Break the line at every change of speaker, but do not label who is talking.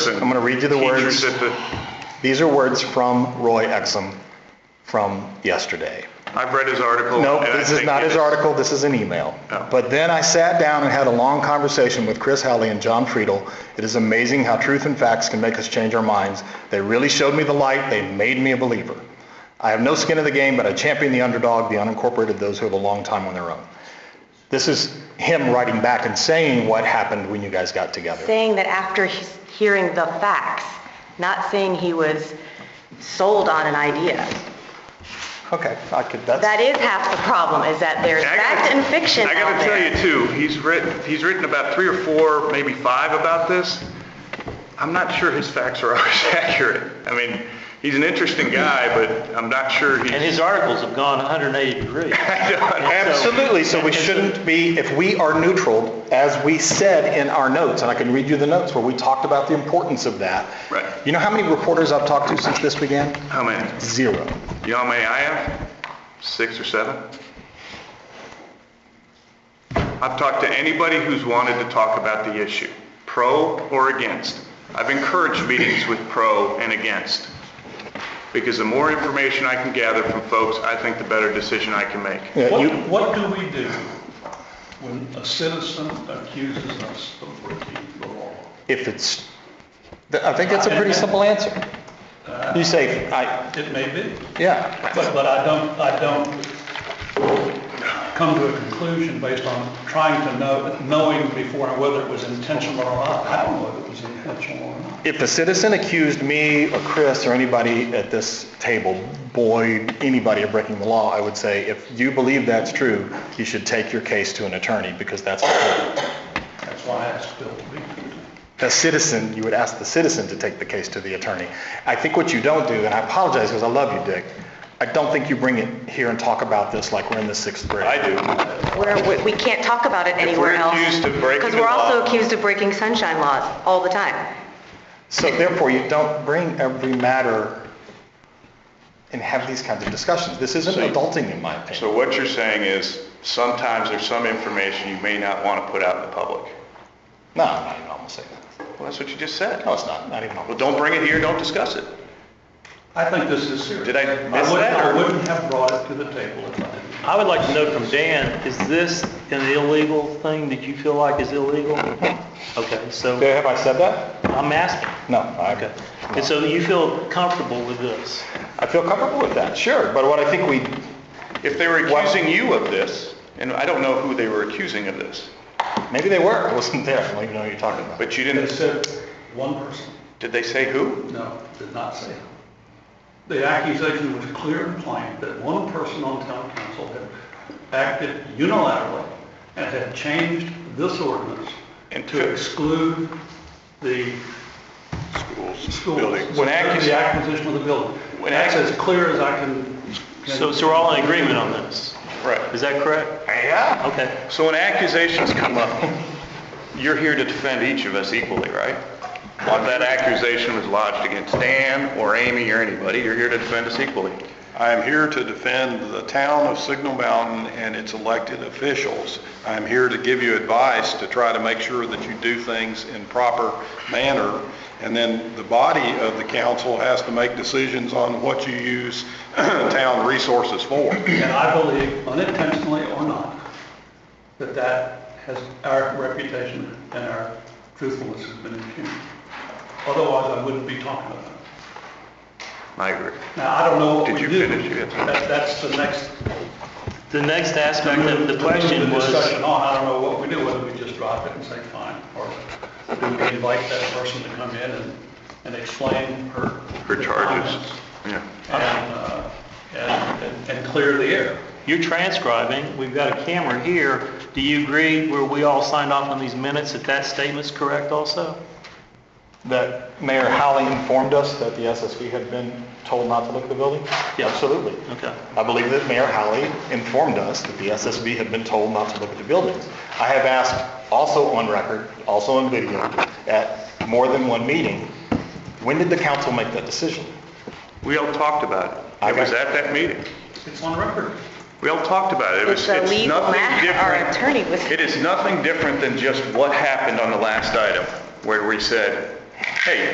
I'm
I'm gonna read you the words. These are words from Roy Exum from yesterday.
I've read his article.
No,
and I
this is
think
not
it
his article, this is an email.
Oh.
But then I sat down and had a long conversation with Chris Halley and John Friedel. It is amazing how truth and facts can make us change our minds. They really showed me the light, they made me a believer. I have no skin in the game, but I champion the underdog, the unincorporated, those who have a long time on their own. This is him writing back and saying what happened when you guys got together.
saying that after he's hearing the facts, not saying he was sold on an idea.
Okay, I could, that's.
That is half the problem, is that there's
I gotta-
fact and fiction
I
out
gotta tell you
there.
too, he's written, he's written about three or four, maybe five about this. I'm not sure his facts are always accurate. I mean, he's an interesting guy, but I'm not sure
And
he's. Oh,
his articles have gone 180 degrees.
Absolutely, so we shouldn't be, if we are neutral, as we said in our notes, and I can read you the notes where we talked about the importance of that.
Right.
You know how many reporters I've talked to since this began?
How many?
Zero. Uh,
You know how many I have? Six or seven? I've talked to anybody who's wanted to talk about the issue, pro or against. I've encouraged meetings with pro and against, because the more information I can gather from folks, I think the better decision I can make.
Yeah,
What,
you-
what do we do when a citizen accuses us of breaking the law?
If it's, th- I think that's a pretty simple answer. You say, I,
It may be,
yeah,
but, but I don't, I don't come to a conclusion based on trying to know, knowing before whether it was intentional or not. I don't know if it was intentional or not.
if a citizen accused me or Chris or anybody at this table, Boyd, anybody of breaking the law, I would say, if you believe that's true, you should take your case to an attorney because that's important.
That's why I asked Bill to be.
the citizen, you would ask the citizen to take the case to the attorney. I think what you don't do, and I apologize because I love you, Dick, I don't think you bring it here and talk about this like we're in the sixth grade.
I do.
Where we- we can't talk about it anywhere else.
accused of breaking
Because
the
we're also
law-
accused of breaking sunshine laws all the time.
So therefore, you don't bring every matter and have these kinds of discussions. This isn't
So you-
adulting, in my opinion.
So what you're saying is, sometimes there's some information you may not want to put out in the public.
No, I'm not even almost saying that.
Well, that's what you just said.
No, it's not, not even
Well,
almost.
don't bring it here, don't discuss it.
I think this is serious.
Did I miss
wouldn't-
that, or-
I wouldn't have brought it to the table if I didn't.
I would like to know from Dan, is this an illegal thing that you feel like is illegal? Okay, so
Have I said that?
I'm asking.
No, I,
Okay. And so you feel comfortable with this?
I feel comfortable with that, sure, but what I think we,
If they were accusing you of this, and I don't know who they were accusing of this,
maybe they were, I wasn't there, I don't even know what you're talking about.
but you
They
didn't,
said one person.
did they say who?
No, did not say. The accusation was clear and plain that one person on town council had acted unilaterally and had changed this ordinance
And
to
took-
exclude the schools.
buildings.
The
When accu-
the acquisition of the building.
When
That's
accu-
as clear as I can. can-
So, so we're all in agreement on this?
Right.
Is that correct?
Yeah.
Okay.
So when accusations come up, you're here to defend each of us equally, right? If that accusation was lodged against Dan or Amy or anybody, you're here to defend us equally.
I am here to defend the town of Signal Mountain and its elected officials. I'm here to give you advice to try to make sure that you do things in proper manner. And then the body of the council has to make decisions on what you use town resources for.
And I believe unintentionally or not, that that has, our reputation and our truthfulness has been impugned. Otherwise, I wouldn't be talking about it.
I agree.
Now, I don't know what
Did
we do.
you finish yet?
That- That's the next.
The next aspect of the
move
question
the
was...
Discussion on, I don't know what we do, whether we just drop it and say fine, or do we invite that person to come in and, and explain her.
Her
her
charges.
comments
Yeah.
And, uh, and, and- and clear the air.
You're transcribing, we've got a camera here. Do you agree where we all signed off on these minutes that that statement's correct also?
That Mayor Howley informed us that the SSV had been told not to look at the building?
Yeah.
Absolutely.
Okay.
I believe that Mayor Howley informed us that the SSV had been told not to look at the buildings. I have asked, also on record, also on video, at more than one meeting, when did the council make that decision?
We all talked about it.
I
It was
got-
at that meeting.
It's on record.
We all talked about it. It was,
It's a
it's
legal
nothing
matter. Our
different.
attorney was-
It is nothing different than just what happened on the last item, where we said, hey,